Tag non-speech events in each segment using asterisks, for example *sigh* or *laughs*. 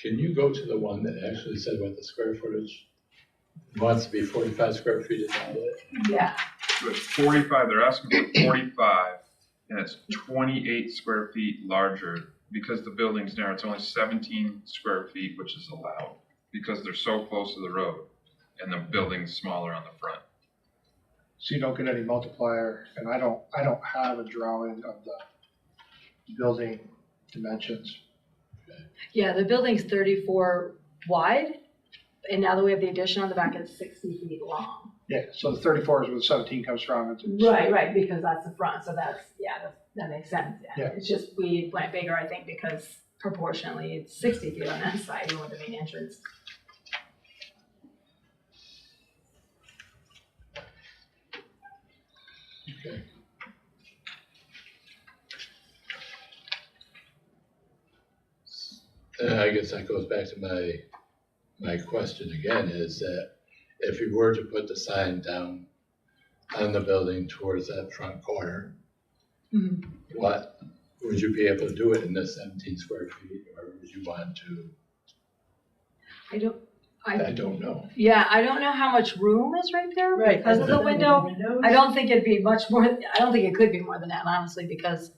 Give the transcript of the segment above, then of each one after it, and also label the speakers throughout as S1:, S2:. S1: Can you go to the one that actually said what the square footage wants to be forty-five square feet in all that?
S2: Yeah,
S3: So it's forty-five, they're asking for forty-five, and it's twenty-eight square feet larger, because the building's narrow, it's only seventeen square feet, which is allowed, because they're so close to the road, and the building's smaller on the front.
S4: so you don't get any multiplier, and I don't, I don't have a drawing of the building dimensions.
S2: yeah, the building's thirty-four wide, and now that we have the addition on the back, it's sixty feet long.
S4: Yeah, so the thirty-four is where the seventeen comes from, it's,
S2: Right, right, because that's the front, so that's, yeah, that, that makes sense, yeah.
S4: Yeah.
S2: It's just we went bigger, I think, because proportionally, it's sixty feet on that side, even with the main entrance.
S1: Okay. Uh, I guess that goes back to my, my question again, is that if you were to put the sign down on the building towards that front corner,
S2: Mhm.
S1: what, would you be able to do it in the seventeen square feet, or would you want to,
S2: I don't,
S1: I
S2: I,
S1: don't know.
S2: yeah, I don't know how much room is right there
S5: Right.
S2: because of the window.
S5: windows.
S2: I don't think it'd be much more, I don't think it could be more than that, honestly, because,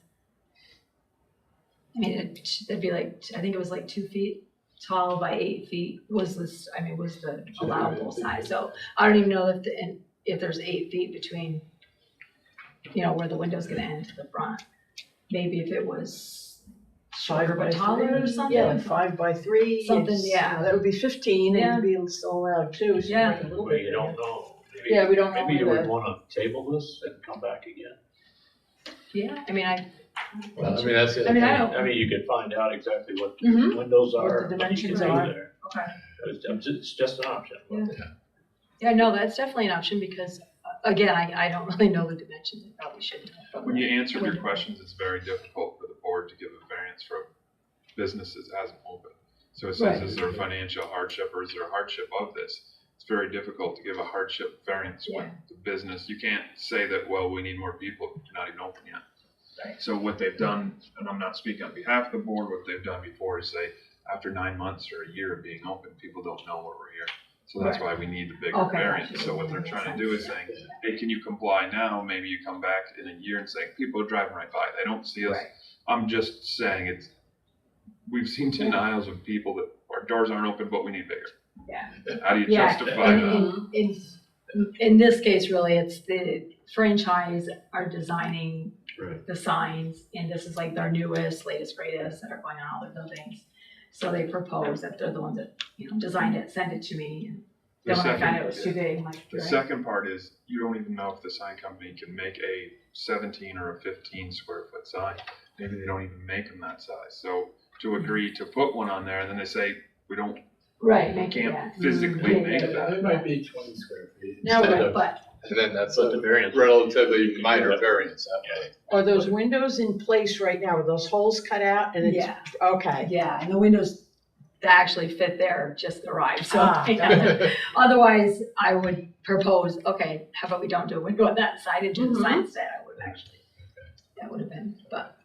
S2: I mean, it'd, it'd be like, I think it was like two feet tall by eight feet was this, I mean, was the allowable size, so I don't even know if, the- and if there's eight feet between, you know, where the window's gonna end to the front. Maybe if it was shorter
S5: Five by
S2: but taller or
S5: three.
S2: something.
S5: Yeah, like five by three.
S2: Something,
S5: it's,
S2: yeah.
S5: you know, That would be fifteen, and it'd be still allowed two, so
S2: Yeah.
S5: make it a little
S6: Well,
S5: bit.
S6: you don't know. Maybe-
S2: Yeah, we don't know
S6: Maybe you would
S2: either.
S6: wanna table this and come back again.
S2: Yeah, I mean, I,
S1: Well, I mean, that's the other
S2: I mean, I
S1: thing.
S2: don't,
S6: I mean, you could find out exactly what the
S2: Mhm.
S6: windows
S5: Oh. What the
S6: are. you can
S5: dimensions
S6: do
S5: are.
S6: there.
S2: okay.
S6: It's, I'm just- it's just an option.
S2: Yeah. Yeah, no, that's definitely an option because, uh, again, I, I don't really know the dimensions, I probably shouldn't. have from
S3: When you
S2: there.
S3: answer your
S2: Window.
S3: questions, it's very difficult for the board to give a variance for businesses as an open. So it says,
S1: Right.
S3: is there financial hardship or is there a hardship of this? It's very difficult to give a hardship variance when
S2: Yeah.
S3: the business, you can't say that, well, we need more people, you're not even open yet.
S2: Right.
S3: So what they've done, and I'm not speaking on behalf of the board, what they've done before is say, after nine months or a year of being open, people don't know where we're here. So that's why we need the bigger
S2: Okay,
S3: variance.
S2: gotcha.
S3: So what they're
S2: Makes
S3: trying to
S2: sense.
S3: do is saying, hey, can you comply now? Maybe you come back in a year and say, people are driving right by, they don't see us.
S2: Right.
S3: I'm just saying it's, we've seen denials of people that our doors aren't open, but we need bigger.
S2: Yeah.
S3: How do you
S2: Yeah,
S3: justify
S2: And
S3: that?
S2: in, in, in this case, really, it's the franchise are designing
S1: Right.
S2: the signs, and this is like their newest, latest, greatest that are going on all their buildings. So they propose that they're the ones that, you know, designed it, sent it to me, and
S3: The
S2: then when I found
S3: second-
S2: out it was too big, I'm like,
S3: The
S2: right.
S3: second part is, you don't even know if the sign company can make a seventeen or a fifteen square foot sign. Maybe they don't even make them that size, so to agree to put one on there, and then they say, we don't,
S2: Right,
S3: we
S2: make it, yeah.
S3: can't physically
S2: Yeah,
S3: make
S2: yeah,
S3: that.
S1: It might be twenty square feet.
S2: No,
S1: instead
S2: right,
S1: of-
S2: but,
S1: And then that's
S6: But
S1: a
S6: the variance-
S1: relatively minor variance, that *laughs* way.
S5: Are those windows in place right now? Are those holes cut out and it's,
S2: yeah.
S5: okay.
S2: Yeah, and the windows that actually fit there just arrived, so.
S5: Ah,
S2: yeah. Otherwise, I would propose, okay, how about we don't do a window on that side and do the
S5: Mhm.
S2: sign instead, I would actually. That would have been, but,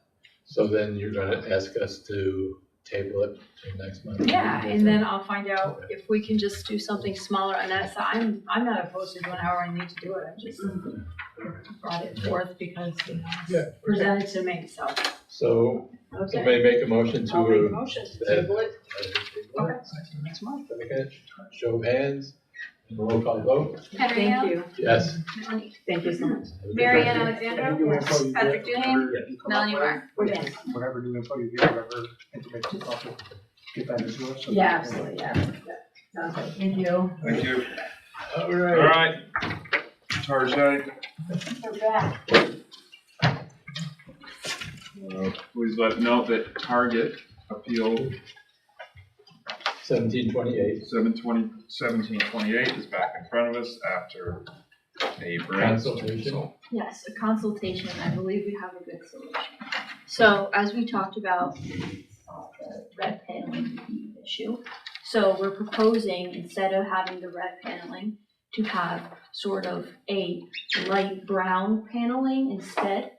S1: So then you're gonna ask us to table it till next month?
S2: yeah, and then I'll find out if we can just do something smaller on that side. I'm, I'm not opposed to doing however I need to do it, I just brought it forth because, you know,
S1: Yeah.
S2: it's presented to me, so.
S1: So
S5: Okay.
S1: somebody make a motion
S5: I'll make a
S1: to.
S5: motion to table it
S1: uh,
S2: Okay.
S5: next month.
S1: Okay, show of hands, and roll call vote,
S2: Thank you.
S1: yes.
S5: Thank you so much.
S7: Mary Ann Alexander,
S4: Yes.
S7: Patrick Duhane, Melanie Mark.
S2: Yes.
S4: Whatever new info you get, whatever information you offer, get that into us. so
S2: Yeah,
S4: we can-
S2: absolutely, yeah. Sounds good. Thank you.
S3: Thank you.
S1: All
S3: All
S1: right,
S3: right. Tarzan,
S2: We're back.
S3: please let note that Target appeal
S1: seventeen twenty-eight,
S3: seven twenty, seventeen twenty-eight is back in front of us after a brainstorm.
S1: Consultation.
S3: So
S7: Yes, a consultation, I believe we have a good solution. So as we talked about, uh, the red paneling issue, so we're proposing, instead of having the red paneling, to have sort of a light brown paneling instead.